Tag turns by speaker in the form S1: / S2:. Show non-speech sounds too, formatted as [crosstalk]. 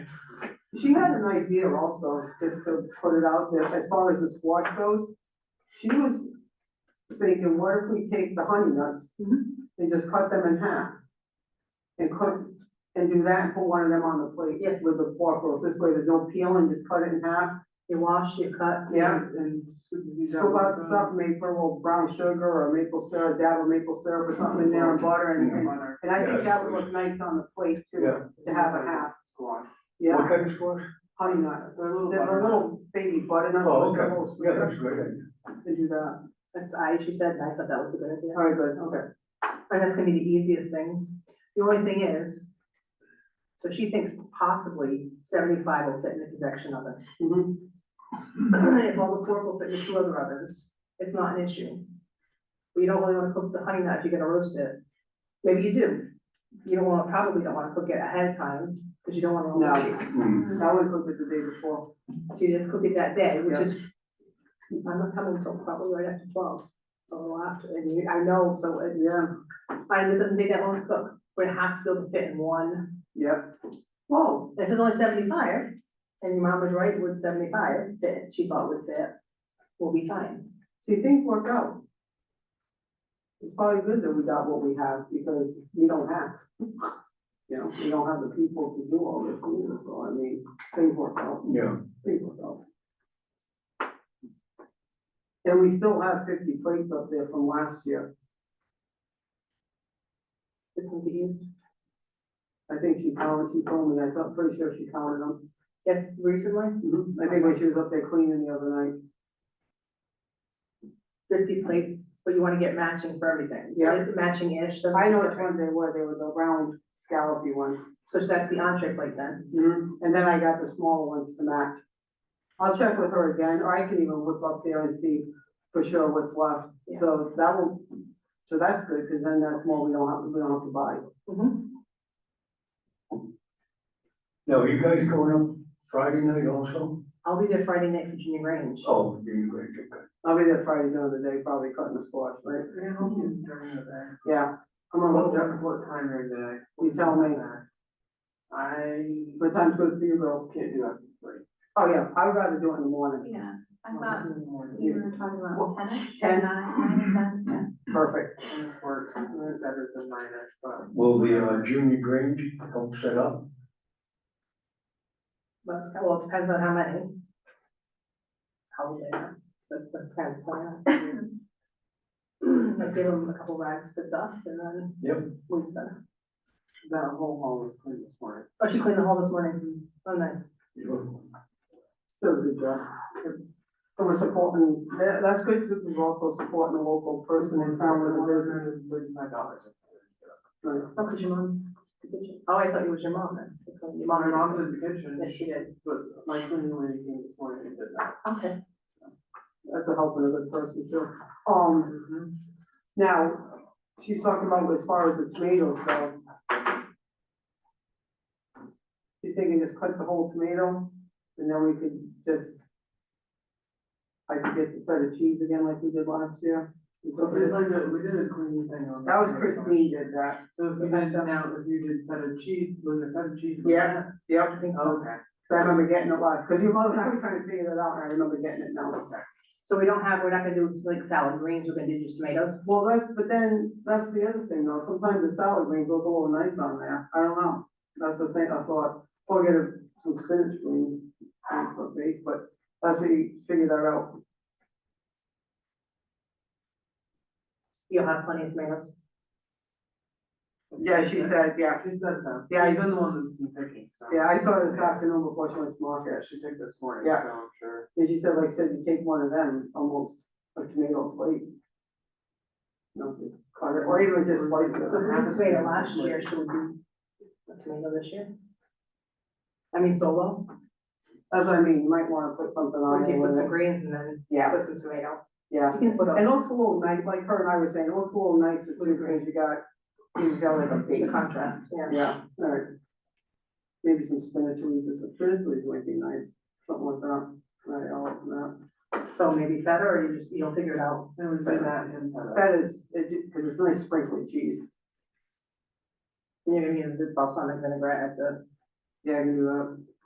S1: She had an idea also, just to put it out there, as far as the squash goes. She was thinking, what if we take the honey nuts and just cut them in half? And cuts, and do that, and put one of them on the plate.
S2: Yes.
S1: With the pork rolls, this way there's no peeling, just cut it in half,
S2: You wash, you cut.
S1: yeah,
S3: And sweet disease.
S1: scoop out the
S3: out.
S1: stuff, make for a little brown sugar or maple syrup, dabble maple syrup or something in there and butter and, and- and I think that would look nice on the plate too, to have a half,
S3: Squash.
S1: yeah,
S4: kind of squash?
S1: honey nut.
S3: They're little.
S1: There's a
S3: butternut.
S1: little baby button on
S4: Oh,
S1: the
S4: okay.
S1: little
S4: Yeah, that's a great idea.
S1: to do that.
S2: That's, I, she said, and I thought that was a good idea.
S1: All right, good, okay.
S2: And that's gonna be the easiest thing. The only thing is, so she thinks possibly seventy-five will fit in the convection oven. [clears throat]
S1: Mhm.
S2: If all the pork will fit in two other ovens, it's not an issue. But you don't really wanna cook the honey nut if you're gonna roast it. Maybe you do. You don't want, probably don't wanna cook it ahead of time, because you don't wanna.
S1: No.
S2: overcook it.
S4: Hmm,
S1: I would cook it the day before.
S2: So you just cook it that day, which is, I'm not coming till probably right after twelve, a little after, and you, I know, so it's.
S1: Yeah,
S2: I mean, it doesn't take that long to cook, but it has to be able to fit in one.
S1: yep.
S2: Whoa. If it's only seventy-five, and your mom was right, would seventy-five fit, she thought would fit, we'll be fine.
S1: See, things work out. It's probably good that we got what we have because we don't have. [laughs] You know, we don't have the people to do all this either, so I mean, things work out,
S4: Yeah.
S1: things work out. And we still have fifty plates up there from last year.
S2: This is the use.
S1: I think she counted, she told me, I thought, pretty sure she counted them.
S2: Yes, recently,
S1: Mhm. I think when she was up there cleaning the other night.
S2: fifty plates, but you wanna get matching for everything.
S1: Yeah.
S2: Matching-ish, doesn't.
S1: I know which ones they were, they were the round scallopy ones.
S2: So that's the entree plate then.
S3: Mm-hmm.
S1: And then I got the smaller ones to match. I'll check with her again, or I can even whip up there and see for sure what's left.
S2: Yeah.
S1: So that will, so that's good, because then that's more we don't have, we don't have to buy.
S2: Mm-hmm.
S4: Now, are you guys going up Friday night also?
S2: I'll be there Friday night for junior range.
S4: Oh, you great, okay.
S1: I'll be there Friday, another day, probably cutting the squash, right?
S3: Yeah, I'll be in during the day.
S1: Yeah. I'm
S3: Well,
S1: on,
S3: what, what time during the day?
S1: You tell me.
S3: I
S1: what time's good for you girls?
S3: can't do after three.
S1: Oh, yeah, I would rather do it in the morning.
S5: Yeah, I
S3: I'll
S5: thought
S3: do it in the morning.
S5: we were talking about tennis.
S1: Ten.
S5: Nine, nine,
S1: Perfect.
S3: It Works, it's better than mine, I thought.
S4: Will the uh, junior Grange help set up?
S2: That's, well, it depends on how many. How old they are, that's, that's kind of plan.
S5: ten.
S2: Like give them a couple rags to dust and then.
S4: Yep.
S2: Weed center.
S3: That whole hall was clean this morning.
S2: Oh, she cleaned the hall this morning, oh, nice.
S1: That was a good job. And we're supporting, that, that's good, because we're also supporting a local person in town with a business.
S3: With my dollars.
S2: Oh, cause your mom, oh, I thought it was your mom then, your mom
S3: My
S2: and mom,
S3: mom did the kitchen,
S2: yes, she did,
S3: but my cleaning lady came this morning and did that.
S2: okay.
S1: That's a helping a good person too. Um,
S3: Mhm.
S1: now, she's talking about as far as the tomatoes go. She's thinking just cut the whole tomato and then we could just, I could get the feta cheese again like we did last year. We
S3: So
S1: took
S3: we did
S1: it-
S3: like a, we did a cleaning thing on.
S1: That was Christine did that.
S3: So if you guys done out, if you did feta cheese, was it feta cheese? with
S1: Yeah. Yep.
S2: I think
S3: that?
S2: so,
S3: Okay.
S1: So I remember getting it last, because you both, I was trying to figure that out, and I remember getting it now.
S2: so we don't have, we're not gonna do like salad greens, we're gonna do just tomatoes,
S1: Well, that's, but then, that's the other thing though, sometimes the salad greens look a little nice on there, I don't know. That's the thing, I thought, or get a- some spinach greens, and put base, but that's where you figure that out.
S2: you'll have plenty of tomatoes.
S1: Yeah, she said, yeah,
S3: She says so.
S1: Yeah, I-
S3: She's the one that's been picking, so.
S1: yeah, I saw her this afternoon before she went to market,
S3: Yeah, she picked this morning, so
S1: Yeah.
S3: I'm sure.
S1: and she said, like, said you take one of them, almost a tomato plate. You know, you cut it, or even just slice it.
S2: So if we had tomato last year, should we do a tomato this year? I mean, solo,
S1: That's what I mean, you might wanna put something on
S2: we
S1: there.
S2: can put
S1: with
S2: some
S1: it.
S2: greens and then
S1: Yeah,
S2: put some tomato.
S1: yeah.
S2: You can put
S1: It
S2: a,
S1: looks a little nice, like her and I were saying, it looks a little nicer too, because you got, you got like a
S2: the
S1: base.
S2: contrast, yeah.
S1: Yeah, alright. Maybe some spinach leaves, or some spinach leaves might be nice, something like that, right, I'll open that.
S2: So maybe feta, or you just, you'll figure it out.
S3: It was in that and feta.
S1: That is, it, because it's nice sprinkly cheese,
S2: You're gonna need the balsamic vinaigrette at the
S1: yeah, I can do that.